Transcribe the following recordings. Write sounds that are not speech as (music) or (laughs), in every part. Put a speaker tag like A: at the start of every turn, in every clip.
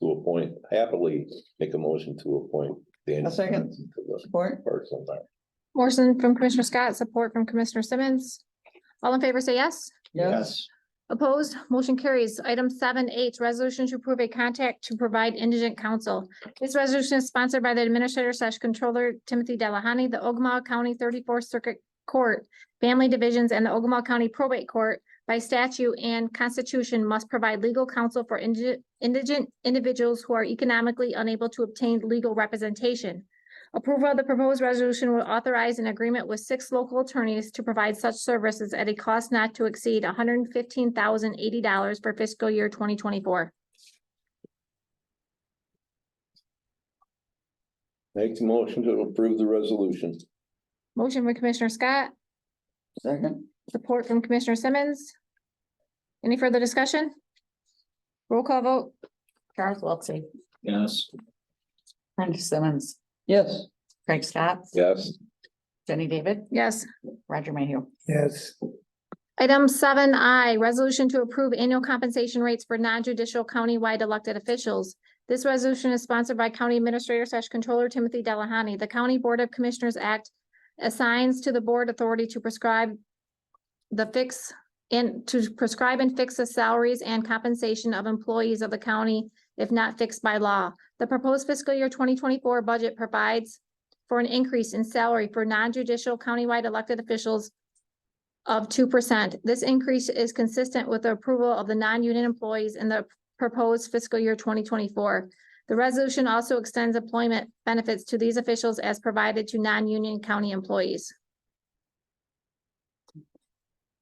A: to appoint, happily make a motion to appoint. Daniel
B: A second.
A: Johnson to the
B: Support?
A: Parks and Rec.
C: Motion from Commissioner Scott, support from Commissioner Simmons. All in favor, say yes.
B: Yes.
C: Opposed, motion carries. Item seven H, resolution to approve a contract to provide indigent counsel. This resolution is sponsored by the Administrator slash Controller Timothy Delahoney, the Ogama County Thirty-Fourth Circuit Court, Family Divisions, and the Ogama County Probate Court by statute and constitution must provide legal counsel for indigent, indigent individuals who are economically unable to obtain legal representation. Approval of the proposed resolution will authorize an agreement with six local attorneys to provide such services at a cost not to exceed hundred and fifteen thousand eighty dollars for fiscal year twenty twenty-four.
A: Make the motion to approve the resolution.
C: Motion from Commissioner Scott,
B: Second?
C: support from Commissioner Simmons. Any further discussion? Roll call vote,
D: Charles Wiltie,
E: yes,
D: Brenda Simmons,
B: Yes.
D: Craig Scott,
A: Yes,
D: Jenny David,
C: yes.
D: Roger Mayhew.
B: Yes.
C: Item seven I, resolution to approve annual compensation rates for non-judicial countywide elected officials. This resolution is sponsored by County Administrator slash Controller Timothy Delahoney. The County Board of Commissioners Act assigns to the board authority to prescribe the fix and to prescribe and fix the salaries and compensation of employees of the county if not fixed by law. The proposed fiscal year twenty twenty-four budget provides for an increase in salary for non-judicial countywide elected officials of two percent. This increase is consistent with the approval of the non-union employees in the proposed fiscal year twenty twenty-four. The resolution also extends employment benefits to these officials as provided to non-union county employees.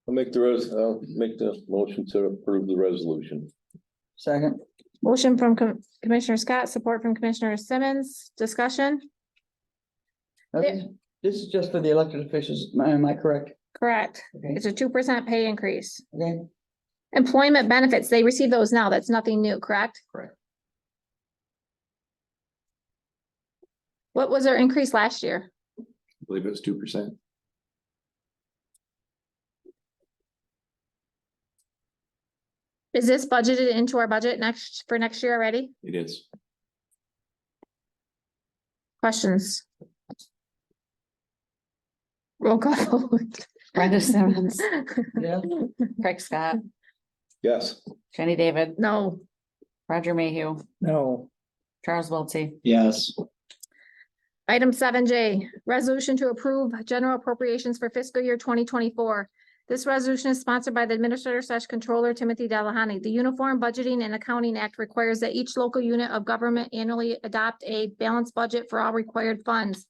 A: I'll make the res, I'll make the motion to approve the resolution.
B: Second?
C: Motion from Com- Commissioner Scott, support from Commissioner Simmons. Discussion?
B: Now, This this is just for the elected officials, am I- am I correct?
C: Correct.
B: Okay,
C: It's a two percent pay increase.
B: okay,
C: Employment benefits, they receive those now. That's nothing new, correct?
B: Correct.
C: What was their increase last year?
E: I believe it was two percent.
C: Is this budgeted into our budget next, for next year already?
E: It is.
C: Questions? Roll call. vote. (laughs)
D: Brenda Simmons,
B: yeah,
D: Craig Scott,
A: Yes,
D: Jenny David,
C: No.
D: Roger Mayhew,
B: no,
D: Charles Wiltie,
E: Yes,
C: Item seven J, resolution to approve general appropriations for fiscal year twenty twenty-four. This resolution is sponsored by the Administrator slash Controller Timothy Delahoney. The Uniform Budgeting and Accounting Act requires that each local unit of government annually adopt a balanced budget for all required funds.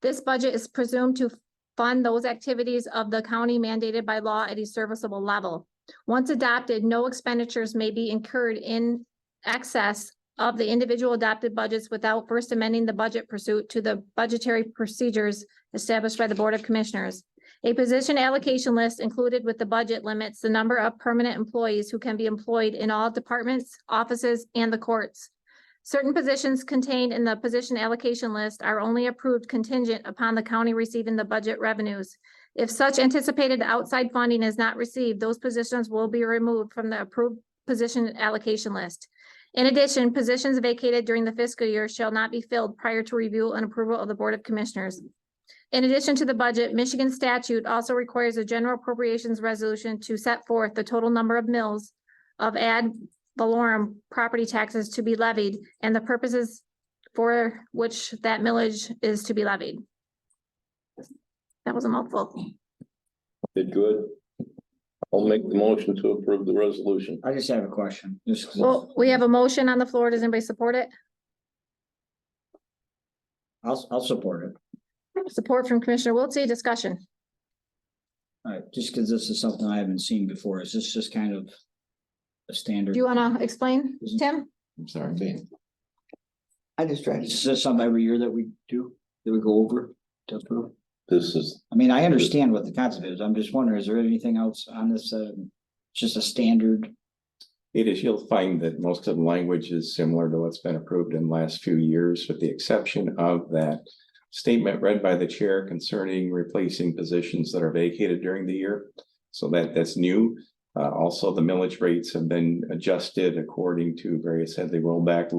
C: This budget is presumed to fund those activities of the county mandated by law at a serviceable level. Once adopted, no expenditures may be incurred in excess of the individual adopted budgets without first amending the budget pursuit to the budgetary procedures established by the Board of Commissioners. A position allocation list included with the budget limits the number of permanent employees who can be employed in all departments, offices, and the courts. Certain positions contained in the position allocation list are only approved contingent upon the county receiving the budget revenues. If such anticipated outside funding is not received, those positions will be removed from the approved position allocation list. In addition, positions vacated during the fiscal year shall not be filled prior to review and approval of the Board of Commissioners. In addition to the budget, Michigan statute also requires a general appropriations resolution to set forth the total number of mills of ad valorem property taxes to be levied and the purposes for which that millage is to be levied. That was a mouthful.
A: did good. I'll make the motion to approve the resolution.
E: I just have a question. Just 'cause
C: Well, we have a motion on the floor. Does anybody support it?
E: I'll, I'll support it.
C: Support from Commissioner Wiltie, discussion.
E: All right, just because this is something I haven't seen before, is this just kind of a standard?
C: Do you want to explain, Tim?
E: I'm sorry.
B: I just tried to.
E: Is this something every year that we do, that we go over to approve?
A: This is,
E: I mean, I understand what the concept is. I'm just wondering, is there anything else on this, um, just a standard?
F: It is, you'll find that most of the language is similar to what's been approved in the last few years, with the exception of that statement read by the chair concerning replacing positions that are vacated during the year. So that, that's new. Uh, also, the millage rates have been adjusted according to various, had they rolled back